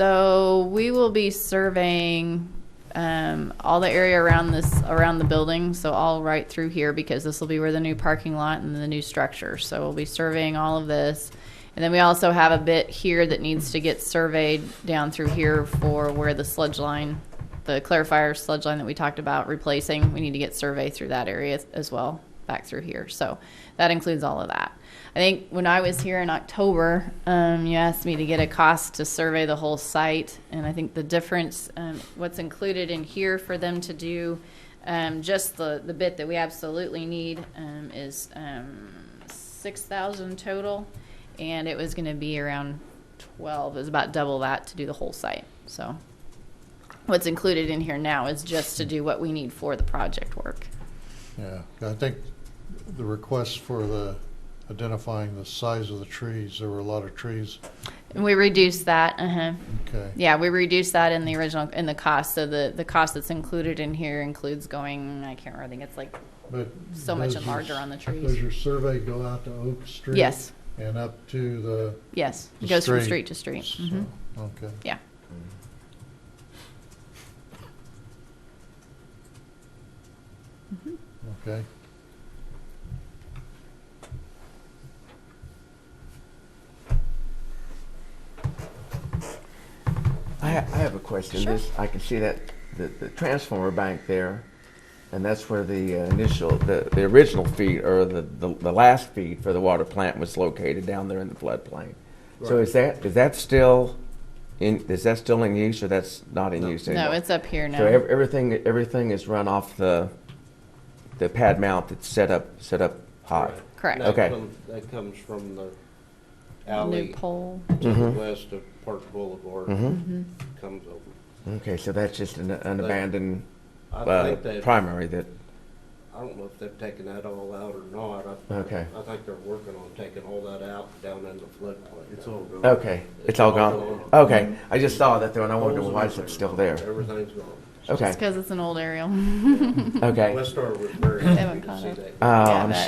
So we will be surveying um, all the area around this, around the building, so all right through here, because this will be where the new parking lot and the new structure. So we'll be surveying all of this. And then we also have a bit here that needs to get surveyed down through here for where the sludge line, the clarifier sludge line that we talked about replacing. We need to get survey through that area as well, back through here. So that includes all of that. I think when I was here in October, um, you asked me to get a cost to survey the whole site, and I think the difference, um, what's included in here for them to do, um, just the, the bit that we absolutely need, um, is, um, six thousand total, and it was gonna be around twelve, it was about double that to do the whole site, so. What's included in here now is just to do what we need for the project work. Yeah, I think the request for the identifying the size of the trees, there were a lot of trees, And we reduced that, uh-huh. okay. Yeah, we reduced that in the original, in the cost, so the, the cost that's included in here includes going, I can't remember, I think it's like, But So much does larger your- on the trees. Does your survey go out to Oak Street? yes, And up to the? yes, The it goes from street street. to street. hmm so, Okay. Yeah. Okay. I, ha- I have a question. Sure. This, I can see that the, the transformer bank there, and that's where the uh, initial, the, the original feed or the, the, the last feed for the water plant was located down there in the floodplain. So is that is that still in is that still in use or that's not in use anymore? No, it's up here so ev- now. everything everything is run off the the pad mount that's set up set up high. Correct. That Okay. comes- That comes from the New alley pole, to the Mhm. west of Park Boulevard. Mm-hmm. Comes over. Okay, so that's just an, an But abandoned I uh, think that, I primary that don't know if they've taken that all out or not. I- Okay. I think they're working on taking all that out down in the floodplain. It's all gone. Okay, it's all gone. Okay, I just saw that though, and I wondered why is it still there. Everything's gone. Okay, just because it's an old aerial. Oh, okay. West Star was very happy Haven't to caught see up. that. Oh, Yeah, I'm but-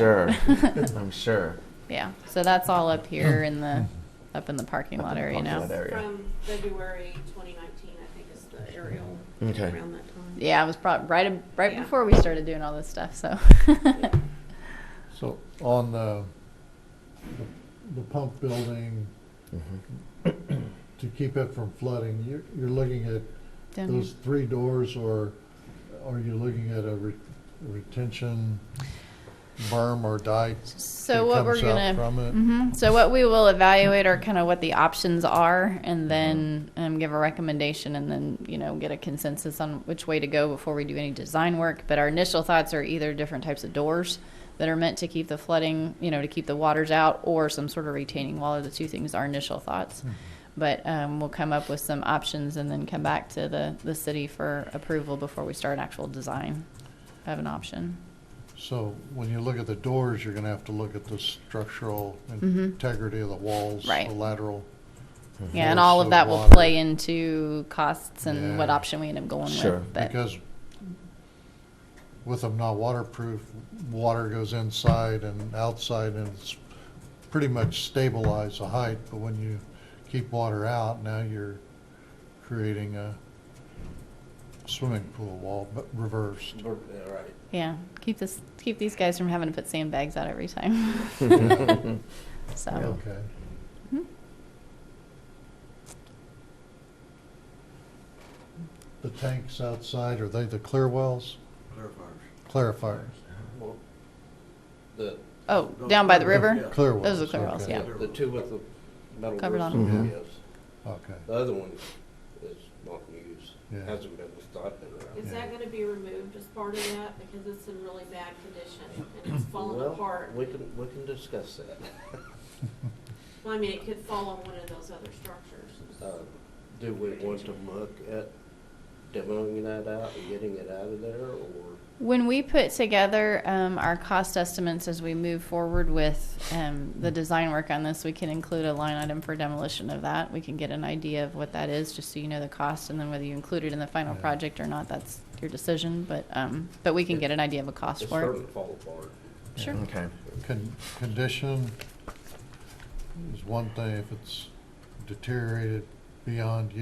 sure. I'm sure. Yeah, so that's all up here in the, up in the parking Up in lot the area parking now. lot. area. From February 2019, I think is the aerial Okay. around that time. Yeah, it was probably right, right Yeah. before we started doing all this stuff, so. So on the, the pump building, to keep it from flooding, you're, you're looking at Down here. those three doors or are you looking at a re- retention berm or dike? So what we're That gonna, comes out from it? Mhm. so what we will evaluate are kind of what the options are, and then um, give a recommendation, and then you know get a consensus on which way to go before we do any design work. But our initial thoughts are either different types of doors that are meant to keep the flooding, you know, to keep the waters out, or some sort of retaining wall. Are the two things our initial thoughts. Hmm. But um, we'll come up with some options and then come back to the, the city for approval before we start actual design of an option. So when you look at the doors, you're gonna have to look at the structural Mhm. integrity of the walls, Right. the lateral. Yeah, and all force of that will water. play into costs and what Yeah. option we end up going Sure. with. But Because with them not waterproof, water goes inside and outside and it's pretty much stabilized the height. But when you keep water out, now you're creating a swimming pool wall, but reversed. Or- yeah, Right. yeah, keep this keep these guys from having to put sandbags out every time. Mm-hmm. so hmm? Okay. The tanks outside, are they the clear wells? Clarifiers. Well, The, oh, down by the river. Clarifiers. Clear wells. Those are clear wells, okay. yeah. the two with the metal Covered on. roofs, Mhm. yes. The Okay, other one is not used, Yeah. hasn't been, it's not been around. Is that going to be removed as part of that? Because it's in really bad condition and it's fallen Well, apart. We can, we can discuss that. Well, I mean, it could fall on one of those other structures. Uh, Do we want to look at demoing that out and getting it out of there, or? When we put together um, our cost estimates as we move forward with um, the design work on this, we can include a line item for demolition of that. We can get an idea of what that is, just so you know the cost, and then whether you include it in the final Yeah. project or not, that's your decision. But um, but we can get an idea of a cost It's for it. starting to fall apart. Sure. Okay. Con- condition is one thing, if it's deteriorated beyond